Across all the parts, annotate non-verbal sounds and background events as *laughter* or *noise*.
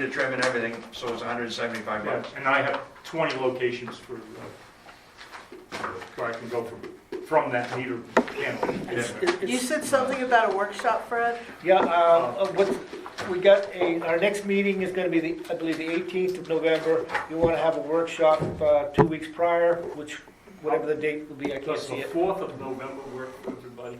to trim and everything, so it's hundred and seventy-five Yeah, bucks. and I have 20 locations for, uh, where I can go from, from that meter panel. It's- Yeah. it's- You said something about a workshop, Fred? Yeah, um, uh, what's, we got a, our next meeting is gonna be the, I believe, the eighteenth of November. You wanna have a workshop, uh, two weeks prior, which, whatever the date will be, I can't Does the see it. 4th of November work for everybody?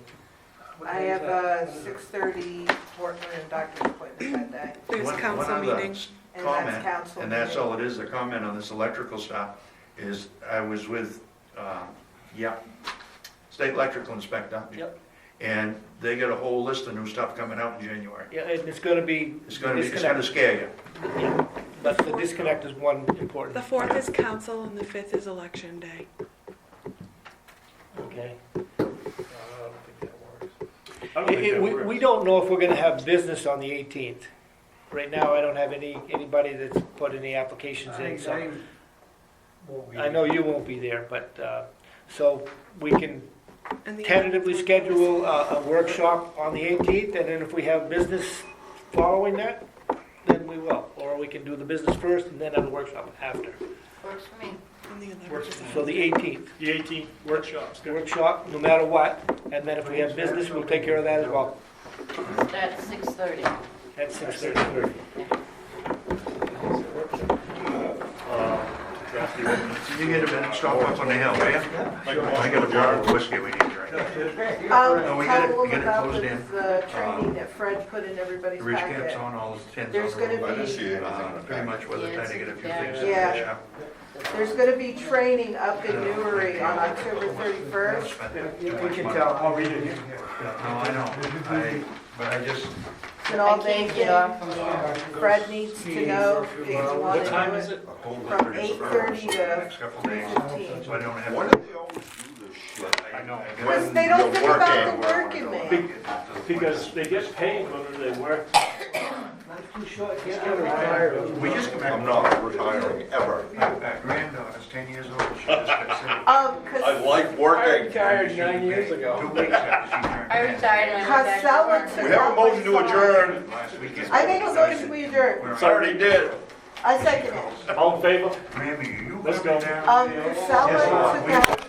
I have a six-thirty Portland doctor's appointment that One- day, There's one council other meeting. s- and Comment, that's council. And that's meeting. all it is, the comment on this electrical stuff, is I was with, uh, yeah, state electrical inspector. Yep. And they got a whole list of new stuff coming out in January. Yeah, and it's gonna be. It's gonna be, it's gonna scare you. disconnect. Yeah, But the disconnect is one important. The fourth is council and the fifth is election day. Okay. Uh, I don't It- think it- that We works. we don't know if we're gonna have business on the 18th. Right now, I don't have any, anybody that's put any applications in, so. I know you won't be there, but, uh, so we can And the- tentatively schedule uh, a a workshop on the 18th, and then if we have business following that, then we will. Or we can do the business first and then have the workshop after. Works for me. and the eleventh Works is for out. So the 18th, The 18th workshop's good. workshop, no matter what, and then if we have business, we'll take care of that as well. That's six thirty. At 6:30. uh, You get a minute, stop up on the hill, will you? I got a bottle of whiskey we need to drink. No, I'll we gotta- tell we gotta them about close this, down. uh, training Um, that Fred put in everybody's The Rich caps packet. on, all the tins on. There's gonna the road. I didn't see anything Uh, in the Pretty pack. much with the time to get a few things. Yeah. There's gonna be training up in Newry on October thirty-first. I'll read it. No, I know, I, but I just, And I all they can't get can, off from here. Fred needs to know if you want to do it. a whole From litter is around 8:30 us the to next couple three days, so fifteen. I don't have. Why do they always do this shit? I know. Because they don't You're think about working. the work in there. Be- Because they get paid whether they work. We just come back, I'm not retiring ever. my granddaughter's ten years old, she just got *laughs* sick. Um, 'cause I like working. Retired nine years ago. Two weeks after she turned. I retired and I went Costello back to work. took We have a out my motion to song. adjourn. Last weekend. I think a motion we adjourn. It's already did. I second it. All in favor? Grammy, you Let's coming go. down? Um, Casella Um, took out